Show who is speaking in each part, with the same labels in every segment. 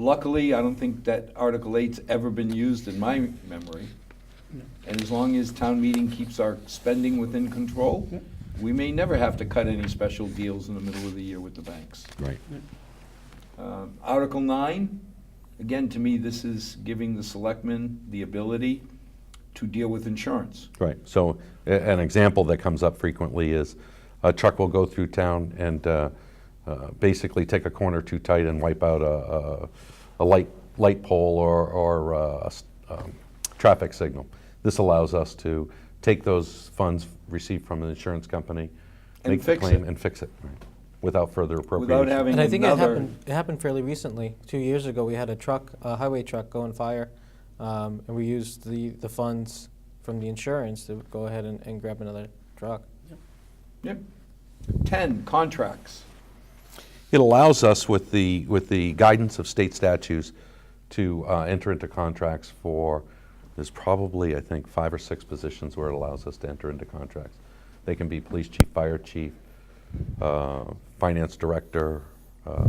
Speaker 1: Luckily, I don't think that Article eight's ever been used in my memory. And as long as town meeting keeps our spending within control,
Speaker 2: Yeah.
Speaker 1: we may never have to cut any special deals in the middle of the year with the banks.
Speaker 3: Right.
Speaker 1: Um, Article nine, again, to me, this is giving the selectmen the ability to deal with insurance.
Speaker 3: Right, so a- an example that comes up frequently is a truck will go through town and uh, uh, basically take a corner too tight and wipe out a, a, a light, light pole or, or uh, a s- um, traffic signal. This allows us to take those funds received from an insurance company,
Speaker 1: And
Speaker 3: make the
Speaker 1: fix
Speaker 3: claim
Speaker 1: it.
Speaker 3: and fix it right, without further appropriation.
Speaker 1: having-
Speaker 4: And I think it
Speaker 1: Another-
Speaker 4: happened, it happened fairly recently. Two years ago, we had a truck, a highway truck go on fire, um, and we used the, the funds from the insurance to go ahead and, and grab another truck.
Speaker 1: Yep. Ten, contracts.
Speaker 3: It allows us, with the, with the guidance of state statutes, to uh, enter into contracts for, there's probably, I think, five or six positions where it allows us to enter into contracts. They can be police chief, fire chief, uh, finance director, uh,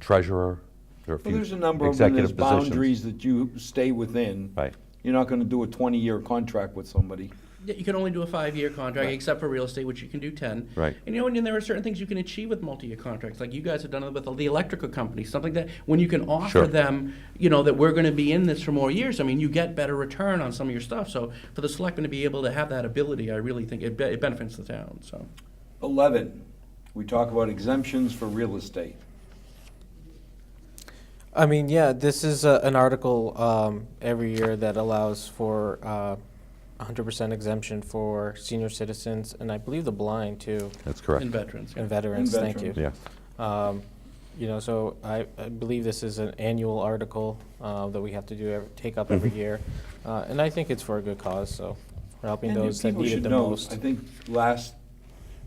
Speaker 3: treasurer, there are a few
Speaker 1: Well, there's a
Speaker 3: executive
Speaker 1: number of them, there's
Speaker 3: positions.
Speaker 1: boundaries that you stay within.
Speaker 3: Right.
Speaker 1: You're not gonna do a twenty-year contract with somebody.
Speaker 2: Yeah, You can only do a five-year contract,
Speaker 1: Right.
Speaker 2: except for real estate, which you can do ten.
Speaker 3: Right.
Speaker 2: And you know, and then there are certain things you can achieve with multi-year contracts, like you guys have done it with the electrical company, something that when you can offer
Speaker 3: Sure.
Speaker 2: them, you know, that we're going to be in this for more years. I mean, you get better return on some of your stuff. So for the selectmen to be able to have that ability, I really think it, be- it benefits the town. So.
Speaker 1: Eleven, we talk about exemptions for real estate.
Speaker 4: I mean, yeah, this is a, an article um, every year that allows for uh, 100% exemption for senior citizens, and I believe the blind too,
Speaker 3: That's correct,
Speaker 2: And veterans.
Speaker 4: and veterans.
Speaker 1: And
Speaker 4: Thank you.
Speaker 1: veterans.
Speaker 3: yes.
Speaker 4: Um, You know, so I, I believe this is an annual article uh, that we have to do, ev- take up every year. Uh, And I think it's for a good cause, so, for helping
Speaker 1: And
Speaker 4: those that
Speaker 1: people
Speaker 4: need it
Speaker 1: should
Speaker 4: the
Speaker 1: know,
Speaker 4: most.
Speaker 1: I think last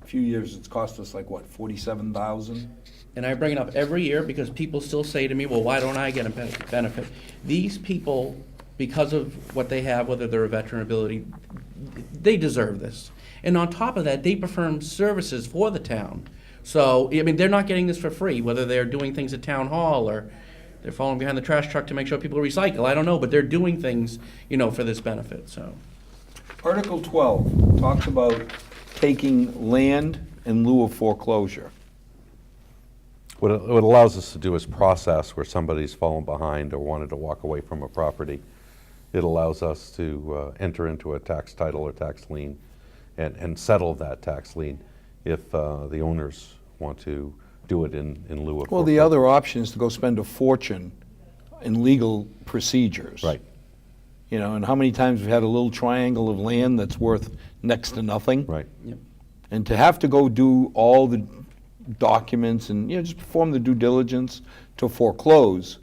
Speaker 1: few years, it's cost us like, what, forty-seven thousand?
Speaker 2: and I bring it up every year because people still say to me, well, why don't I get a ben- benefit? These people, because of what they have, whether they're a veteran ability, they deserve this. And on top of that, they perform services for the town. So, I mean, they're not getting this for free, whether they're doing things at town hall or they're following behind the trash truck to make sure people recycle. I don't know, but they're doing things, you know, for this benefit, so.
Speaker 1: Article twelve talks about taking land in lieu of foreclosure.
Speaker 3: What it, what it allows us to do is process where somebody's fallen behind or wanted to walk away from a property. It allows us to uh, enter into a tax title or tax lien and, and settle that tax lien if uh, the owners want to do it in, in lieu of.
Speaker 1: Well, the
Speaker 3: foreclosure.
Speaker 1: other option is to go spend a fortune in legal procedures.
Speaker 3: Right.
Speaker 1: You know, and how many times we've had a little triangle of land that's worth next to nothing?
Speaker 3: Right.
Speaker 1: And to have to go do all the documents and, you know, just perform the due diligence to foreclose,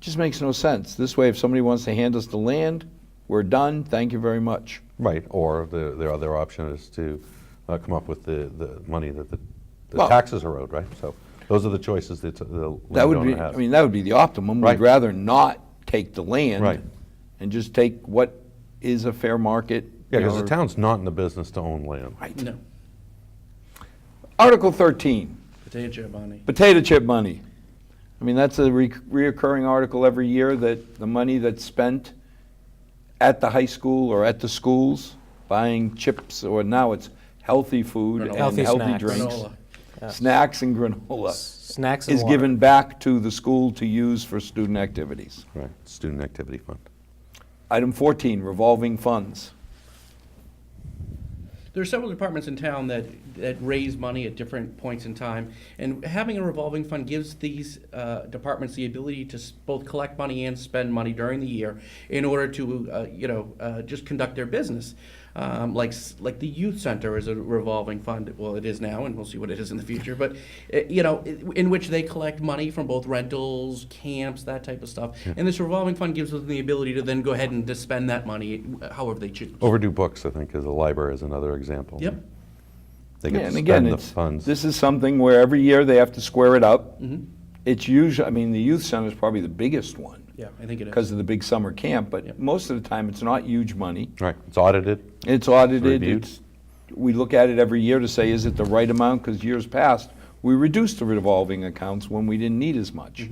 Speaker 1: just makes no sense. This way, if somebody wants to hand us the land, we're done, thank you very much.
Speaker 3: Right. Or the, the other option is to uh, come up with the, the money that the, the
Speaker 1: Well-
Speaker 3: taxes are owed, right? So those are the choices that the
Speaker 1: That would
Speaker 3: landowner
Speaker 1: be,
Speaker 3: has.
Speaker 1: I mean, that would be the optimum. We'd
Speaker 3: Right.
Speaker 1: rather not take the land.
Speaker 3: Right.
Speaker 1: And just take what is a fair market.
Speaker 3: yeah,
Speaker 1: you
Speaker 3: because
Speaker 1: know,
Speaker 3: the town's not in the business to own land.
Speaker 1: Right.
Speaker 2: No,
Speaker 1: Article 13,
Speaker 2: potato chip, Bonnie.
Speaker 1: potato chip money. I mean, that's a re- reoccurring article every year that the money that's spent at the high school or at the schools buying chips, or now it's healthy food and
Speaker 2: Granola.
Speaker 1: healthy
Speaker 4: Healthy snacks.
Speaker 1: drinks.
Speaker 2: Granola.
Speaker 1: Snacks and granola
Speaker 4: Snacks and
Speaker 1: is
Speaker 4: water.
Speaker 1: given back to the school to use for student activities.
Speaker 3: Right. Student Activity Fund.
Speaker 1: Item 14, revolving funds.
Speaker 2: There are several departments in town that, that raise money at different points in time, and having a revolving fund gives these uh, departments the ability to s- both collect money and spend money during the year in order to, uh, you know, uh, just conduct their business. Um, like s- like the youth center is a revolving fund. Well, it is now, and we'll see what it is in the future. But uh, you know, i- in which they collect money from both rentals, camps, that type of stuff. And this revolving fund gives them the ability to then go ahead and to spend that money uh, however they choose.
Speaker 3: Overdue books, I think, is a library is another example.
Speaker 2: Yep.
Speaker 3: They get
Speaker 1: Yeah,
Speaker 3: to
Speaker 1: and
Speaker 3: spend
Speaker 1: again,
Speaker 3: the
Speaker 1: it's-
Speaker 3: funds.
Speaker 1: This is something where every year they have to square it up.
Speaker 4: Mm-hmm.
Speaker 1: It's usually, I mean, the youth center is probably the biggest one.
Speaker 2: Yeah, I think it is.
Speaker 1: because of the big summer camp, but
Speaker 2: Yep.
Speaker 1: most of the time, it's not huge money.
Speaker 3: right. It's audited.
Speaker 1: It's audited,
Speaker 3: Reviewed.
Speaker 1: it's, we look at it every year to say, is it the right amount? Because years past, we reduced the revolving accounts when we didn't need as much.